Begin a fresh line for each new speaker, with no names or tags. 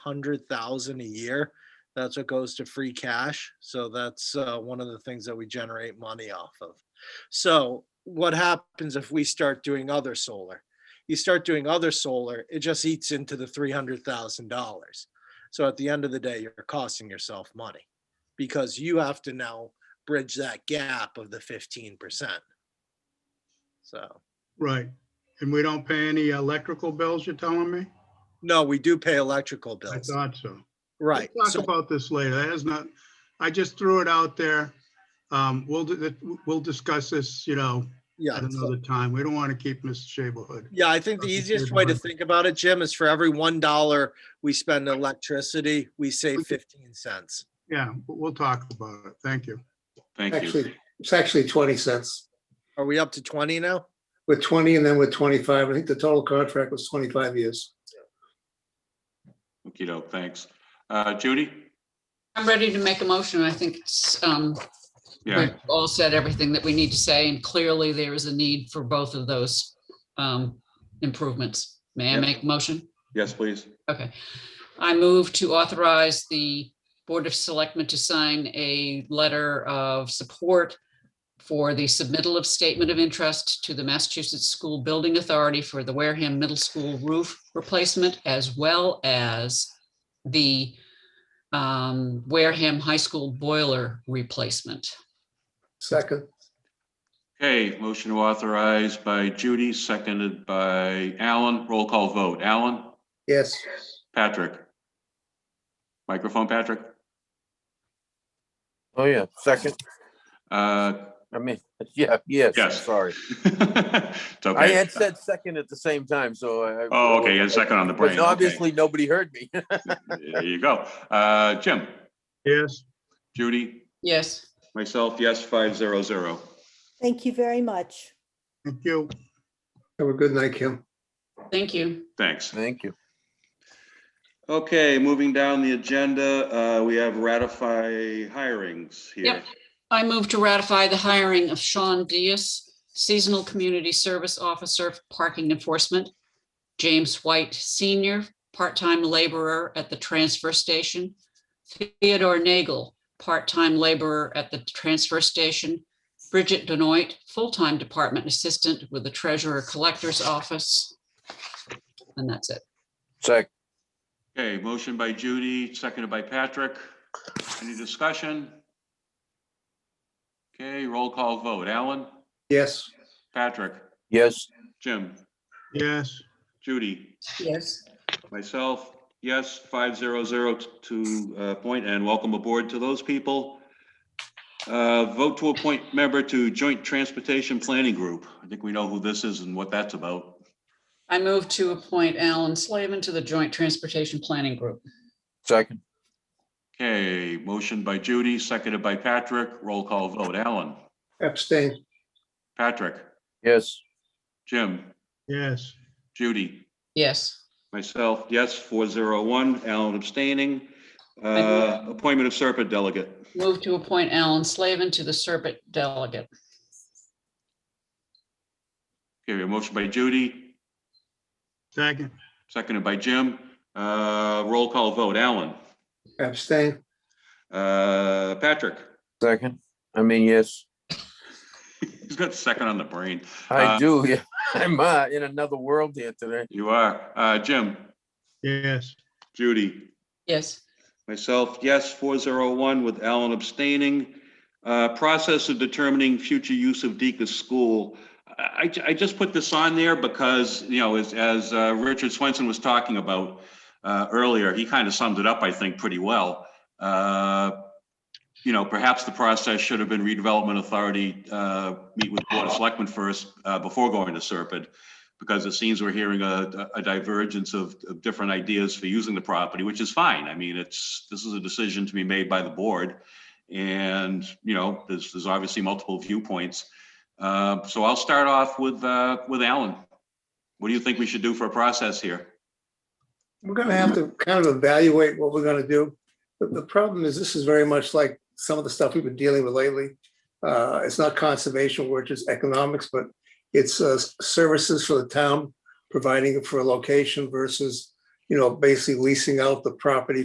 hundred thousand a year. That's what goes to free cash. So that's uh, one of the things that we generate money off of. So what happens if we start doing other solar? You start doing other solar, it just eats into the three hundred thousand dollars. So at the end of the day, you're costing yourself money because you have to now bridge that gap of the fifteen percent. So.
Right, and we don't pay any electrical bills, you're telling me?
No, we do pay electrical
I
bills,
thought so.
right?
We'll
So-
Talk about this later, that is not, I just threw it out there. Um, we'll, do that- we'll discuss this, you know,
Yeah.
at
so-
another time, we don't want to keep Mr. Shabelhood.
Yeah, I think the
Okay,
easiest
good
way to
one.
think about it, Jim, is for every one dollar we spend on electricity, we save fifteen cents.
Yeah, but we'll talk about it, thank you.
Thank you.
Actually, it's actually 20 cents.
Are we up to twenty now?
With 20 and then with 25, I think the total contract was 25 years.
okey doke, thanks. Uh, Judy?
I'm ready to make a motion. I think it's um,
Yeah,
we've all said everything that we need to say, and clearly there is a need for both of those um, improvements. May I
Yep.
make a motion?
yes, please.
Okay. I move to authorize the Board of Selectmen to sign a letter of support for the submittal of statement of interest to the Massachusetts School Building Authority for the Wareham Middle School roof replacement as well as the um, Wareham High School boiler replacement.
Second,
Okay, motion authorized by Judy, seconded by Alan. Roll call vote. Alan?
yes,
Patrick? Microphone, Patrick?
Oh, yeah, second,
Uh,
I mean, yeah, yes, I'm
Yes.
sorry.
It's
I
okay.
had said second at the same time, so I. I-
Oh, okay, you had a second on the brain.
But
okay.
obviously, nobody heard me.
There you go. Uh, Jim?
Yes,
Judy?
Yes,
Myself, yes, five zero zero.
Thank you very much.
thank you.
have a good night, Kim.
thank you.
Thanks.
Thank you.
Okay, moving down the agenda, uh, we have ratify hirings here.
Yep. I move to ratify the hiring of Sean Diaz, Seasonal Community Service Officer, Parking Enforcement. James White Senior, Part-Time Laborer at the Transfer Station. Theodore Nagel, Part-Time Laborer at the Transfer Station. Bridget Benoit, Full-Time Department Assistant with the Treasurer Collector's Office. And that's it.
Sec,
Okay, motion by Judy, seconded by Patrick. Any discussion? Okay, roll call vote. Alan?
Yes,
Patrick?
yes,
Jim?
Yes,
Judy?
Yes.
Myself, yes, five zero zero to uh, appoint and welcome aboard to those people. Uh, Vote to appoint member to Joint Transportation Planning Group. I think we know who this is and what that's about.
I move to appoint Alan Slavin to the Joint Transportation Planning Group.
second,
Okay, motion by Judy, seconded by Patrick. Roll call vote. Alan?
abstain,
Patrick?
yes,
Jim?
yes,
Judy?
Yes.
Myself, yes, four zero one. Alan abstaining. Uh, Appointment of Serpent Delegate.
Move to appoint Alan Slavin to the Serpent Delegate.
Okay, a motion by Judy,
second,
seconded by Jim. Uh, Roll call vote. Alan?
abstain,
Uh, Patrick,
second, I mean, yes,
he's got second on the brain. Uh,
I do, yeah, I'm uh, in another world here today.
You are. Uh, Jim,
yes,
Judy,
Yes,
myself, yes, four zero one with Alan abstaining. Uh, process of determining future use of Deacon's School. I, I- I just put this on there because, you know, as, as, uh, Richard Swenson was talking about, uh, earlier, he kind of summed it up, I think, pretty well. Uh, you know, perhaps the process should have been redevelopment authority, uh, meet with Board of Selectmen first, uh, before going to Serpent. Because it seems we're hearing a, a divergence of, of different ideas for using the property, which is fine. I mean, it's, this is a decision to be made by the board. And, you know, there's, there's obviously multiple viewpoints. Uh, so I'll start off with, uh, with Alan. What do you think we should do for a process here?
We're gonna have to kind of evaluate what we're gonna do. But the problem is, this is very much like some of the stuff we've been dealing with lately. Uh, it's not conservation, which is economics, but it's uh, services for the town, providing for a location versus you know, basically leasing out the property